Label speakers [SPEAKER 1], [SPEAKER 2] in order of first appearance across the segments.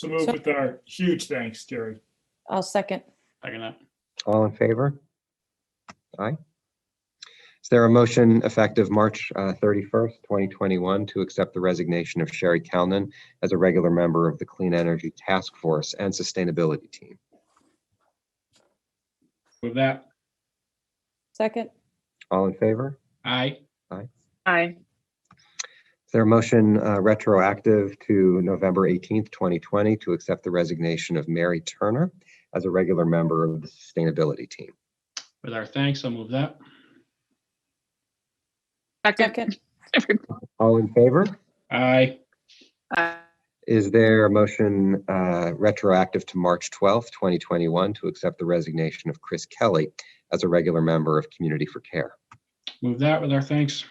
[SPEAKER 1] to move with our huge thanks, Jerry.
[SPEAKER 2] I'll second.
[SPEAKER 3] Second that.
[SPEAKER 4] All in favor? Aye. Is there a motion effective March uh, 31st, 2021, to accept the resignation of Sherry Kalnin as a regular member of the Clean Energy Task Force and Sustainability Team?
[SPEAKER 3] With that,
[SPEAKER 2] Second.
[SPEAKER 4] All in favor?
[SPEAKER 3] aye.
[SPEAKER 5] aye,
[SPEAKER 4] Is there a motion uh, retroactive to November 18th, 2020, to accept the resignation of Mary Turner as a regular member of the Sustainability Team?
[SPEAKER 3] With our thanks, I'll move that.
[SPEAKER 5] second,
[SPEAKER 2] Second.
[SPEAKER 4] All in favor?
[SPEAKER 3] Aye.
[SPEAKER 5] aye,
[SPEAKER 4] Is there a motion uh, retroactive to March 12th, 2021, to accept the resignation of Chris Kelly as a regular member of Community for Care?
[SPEAKER 3] Move that with our thanks.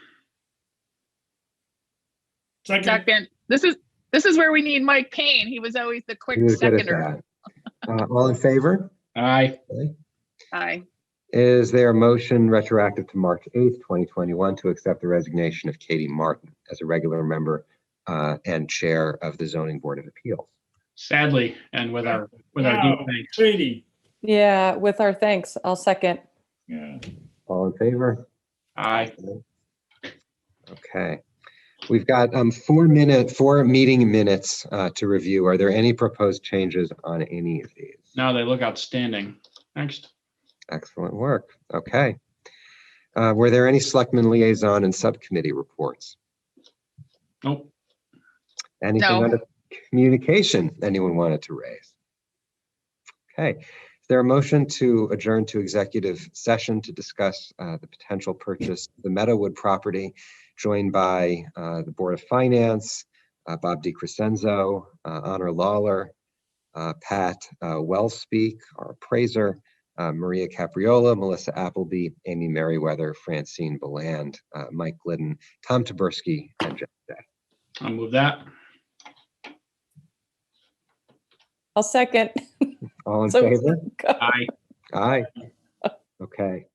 [SPEAKER 1] Second,
[SPEAKER 5] second. This is, this is where we need Mike Payne. He was always the quick
[SPEAKER 4] He was good at
[SPEAKER 5] seconder.
[SPEAKER 4] that. Uh, All in favor?
[SPEAKER 3] Aye.
[SPEAKER 5] Aye,
[SPEAKER 4] Is there a motion retroactive to March 8th, 2021, to accept the resignation of Katie Martin as a regular member uh, and Chair of the Zoning Board of Appeals?
[SPEAKER 3] Sadly, and with our, with our
[SPEAKER 1] Wow.
[SPEAKER 3] deep thanks.
[SPEAKER 1] Katie.
[SPEAKER 2] Yeah, with our thanks, I'll second.
[SPEAKER 1] Yeah.
[SPEAKER 4] All in favor?
[SPEAKER 3] Aye.
[SPEAKER 4] Okay. We've got um, four minute, four meeting minutes uh, to review. Are there any proposed changes on any of these?
[SPEAKER 3] Now they look outstanding. Next.
[SPEAKER 4] Excellent work. Okay. Uh, Were there any selectmen liaison and subcommittee reports?
[SPEAKER 3] Nope.
[SPEAKER 4] Anything
[SPEAKER 5] No.
[SPEAKER 4] under communication anyone wanted to raise? Okay. Is there a motion to adjourn to executive session to discuss uh, the potential purchase of the Meadowwood property, joined by uh, the Board of Finance, uh, Bob DiCrescenzo, uh, Honor Lawler, uh, Pat uh, Wellspeak, our appraiser, uh, Maria Capriola, Melissa Appleby, Amy Merriweather, Francine Beland, uh, Mike Glidden, Tom Taberski, and Jeff Day.
[SPEAKER 3] I'll move that.
[SPEAKER 2] I'll second.
[SPEAKER 4] All in
[SPEAKER 2] So-
[SPEAKER 4] favor?
[SPEAKER 3] Aye.
[SPEAKER 4] Aye. Okay.